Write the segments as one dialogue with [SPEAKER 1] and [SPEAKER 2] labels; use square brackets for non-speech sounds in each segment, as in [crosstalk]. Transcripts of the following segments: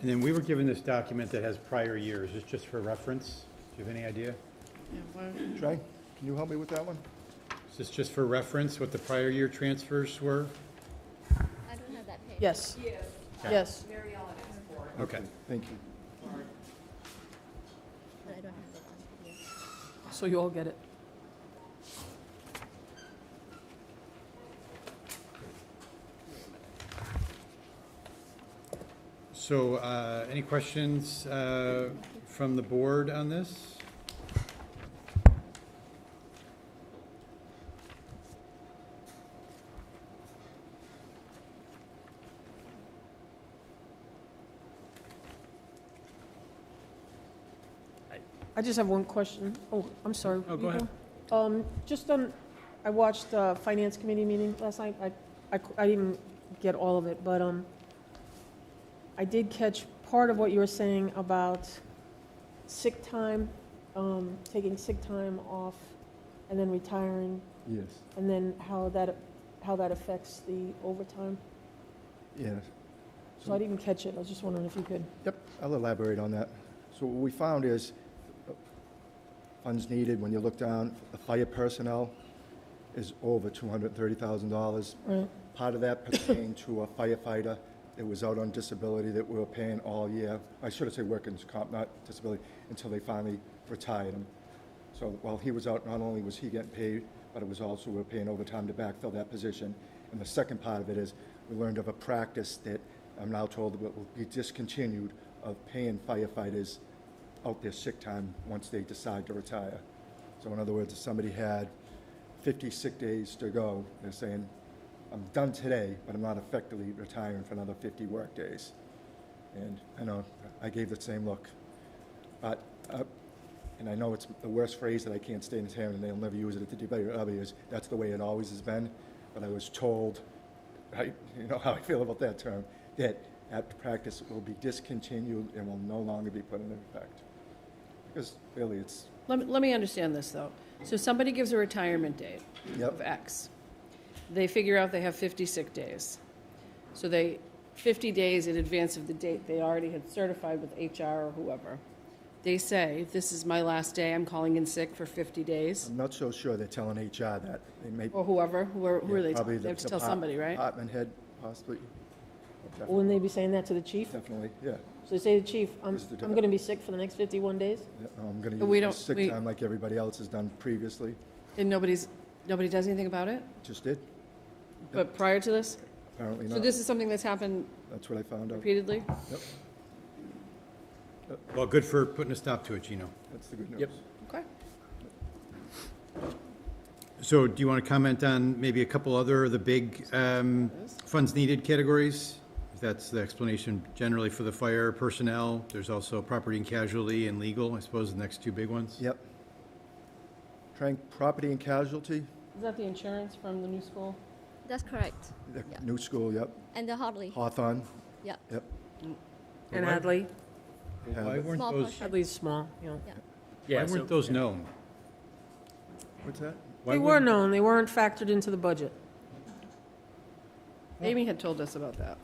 [SPEAKER 1] And then we were given this document that has prior years, it's just for reference. Do you have any idea?
[SPEAKER 2] Jay, can you help me with that one?
[SPEAKER 1] Is this just for reference, what the prior year transfers were?
[SPEAKER 3] I don't have that page.
[SPEAKER 4] Yes,
[SPEAKER 5] Yes,
[SPEAKER 1] Okay.
[SPEAKER 4] yes.
[SPEAKER 5] Mary Ellen asked for it.
[SPEAKER 1] Okay.
[SPEAKER 2] Thank you.
[SPEAKER 3] But I don't have that on here.
[SPEAKER 4] So you all get it.
[SPEAKER 1] So, uh, any questions, uh, from the board on this?
[SPEAKER 4] I just have one question. Oh, I'm sorry.
[SPEAKER 1] Oh,
[SPEAKER 4] you
[SPEAKER 1] go ahead.
[SPEAKER 4] Um, just on, I watched the finance committee meeting last night. I, I, cou- I didn't get all of it, but, um, I did catch part of what you were saying about sick time, um, taking sick time off and then retiring,
[SPEAKER 2] Yes,
[SPEAKER 4] and then how that, how that affects the overtime.
[SPEAKER 2] yes.
[SPEAKER 4] So I didn't catch it. I was just wondering if you could.
[SPEAKER 2] Yep, I'll elaborate on that. So what we found is uh, funds needed, when you look down, the fire personnel is over $230,000.
[SPEAKER 4] Right.
[SPEAKER 2] Part of that pertained to a firefighter that was out on disability that we were paying all year. I should have said workers' comp, not disability, until they finally retired him. So while he was out, not only was he getting paid, but it was also we were paying overtime to backfill that position. And the second part of it is, we learned of a practice that I'm now told that will be discontinued of paying firefighters out their sick time once they decide to retire. So in other words, if somebody had 50 sick days to go, they're saying, I'm done today, but I'm not effectively retiring for another 50 work days. And I know, I gave the same look. But, uh, and I know it's the worst phrase that I can't stay in town, and they'll never use it at the debate or other years, that's the way it always has been. But I was told, right, you know [laughs] how I feel about that term, that apt practice will be discontinued and will no longer be put into effect. Because really, it's,
[SPEAKER 6] Let me, let me understand this, though. So somebody gives a retirement date
[SPEAKER 2] Yep.
[SPEAKER 6] of X. They figure out they have 50 sick days. So they, 50 days in advance of the date they already had certified with HR or whoever. They say, this is my last day, I'm calling in sick for 50 days,
[SPEAKER 2] I'm not so sure they're telling HR that. They may.
[SPEAKER 6] or whoever, who are, who are they,
[SPEAKER 2] Probably the
[SPEAKER 6] telling? they have to
[SPEAKER 2] the
[SPEAKER 6] tell
[SPEAKER 2] pot-
[SPEAKER 6] somebody, right?
[SPEAKER 2] Department head, possibly. Definitely,
[SPEAKER 4] Wouldn't they be saying that to the chief?
[SPEAKER 2] Definitely, yeah.
[SPEAKER 4] So they say to the chief, I'm,
[SPEAKER 2] This is the
[SPEAKER 4] I'm gonna be sick for the next fifty-one days?
[SPEAKER 2] Yeah, I'm going
[SPEAKER 6] But
[SPEAKER 2] to
[SPEAKER 6] we
[SPEAKER 2] use my
[SPEAKER 6] don't- we-
[SPEAKER 2] sick time like everybody else has done previously.
[SPEAKER 6] And nobody's, nobody does anything about it?
[SPEAKER 2] Just did,
[SPEAKER 6] But prior to this?
[SPEAKER 2] apparently
[SPEAKER 6] So
[SPEAKER 2] not.
[SPEAKER 6] this is something that's happened
[SPEAKER 2] That's what I found out.
[SPEAKER 6] repeatedly?
[SPEAKER 1] Well, good for putting a stop to it, Gino.
[SPEAKER 2] That's the good news.
[SPEAKER 1] Yep.
[SPEAKER 6] Okay.
[SPEAKER 1] So do you want to comment on maybe a couple other of the big um, funds needed categories? That's the explanation generally for the fire personnel. There's also property and casualty and legal, I suppose, the next two big ones.
[SPEAKER 2] Yep. Trying property and casualty,
[SPEAKER 6] Is that the insurance from the new school?
[SPEAKER 3] That's correct.
[SPEAKER 2] the
[SPEAKER 3] Yeah.
[SPEAKER 2] new school, yep.
[SPEAKER 3] And the Hartley,
[SPEAKER 2] Hawthorne,
[SPEAKER 3] yeah.
[SPEAKER 2] yep.
[SPEAKER 4] And
[SPEAKER 1] Why-
[SPEAKER 4] Hadley?
[SPEAKER 1] Why weren't
[SPEAKER 3] Small
[SPEAKER 1] those,
[SPEAKER 3] portion.
[SPEAKER 4] Hadley's small, you know.
[SPEAKER 1] why
[SPEAKER 7] Yeah, so
[SPEAKER 1] weren't those known?
[SPEAKER 2] What's that?
[SPEAKER 1] Why
[SPEAKER 4] They were
[SPEAKER 1] wouldn't-
[SPEAKER 4] known, they weren't factored into the budget.
[SPEAKER 6] Amy had told us about that.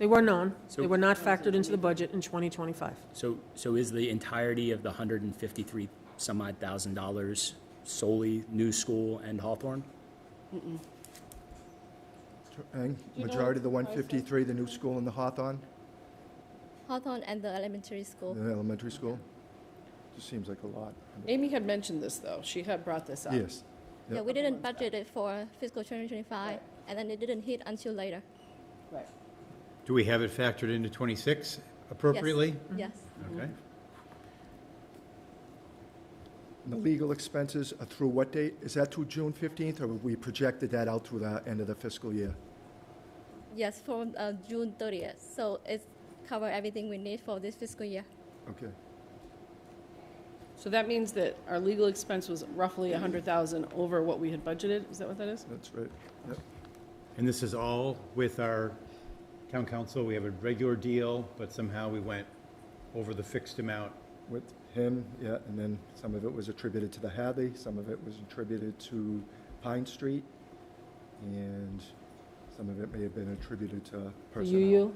[SPEAKER 4] They were known, they
[SPEAKER 7] So-
[SPEAKER 4] were not factored into the budget in twenty twenty-five.
[SPEAKER 7] so so is the entirety of the hundred and fifty three some odd thousand dollars solely New School and Hawthorne?
[SPEAKER 2] Trying,
[SPEAKER 6] you know
[SPEAKER 2] majority of the
[SPEAKER 6] what the price is?
[SPEAKER 2] 153, the new school and the Hawthorne,
[SPEAKER 3] Hawthorne and the elementary school.
[SPEAKER 2] the elementary school. Just seems like a lot.
[SPEAKER 6] Amy had mentioned this, though. She had brought this up.
[SPEAKER 2] Yes.
[SPEAKER 3] Yeah,
[SPEAKER 2] Yep.
[SPEAKER 3] we didn't budget it for fiscal 2025,
[SPEAKER 6] Right.
[SPEAKER 3] and then it didn't hit until later.
[SPEAKER 6] Right.
[SPEAKER 1] Do we have it factored into 26 appropriately?
[SPEAKER 3] Yes.
[SPEAKER 1] Okay.
[SPEAKER 2] And the legal expenses are through what date? Is that through June 15th, or have we projected that out through the end of the fiscal year?
[SPEAKER 3] Yes, from uh, June 30th. So it's cover everything we need for this fiscal year.
[SPEAKER 2] Okay.
[SPEAKER 6] So that means that our legal expense was roughly a hundred thousand over what we had budgeted. Is that what that is?
[SPEAKER 2] That's right. Yep.
[SPEAKER 1] And this is all with our town council. We have a regular deal, but somehow we went over the fixed amount.
[SPEAKER 2] With him, yeah, and then some of it was attributed to the Hadley, some of it was attributed to Pine Street, and some of it may have been attributed to
[SPEAKER 4] The
[SPEAKER 2] personnel.
[SPEAKER 4] UU,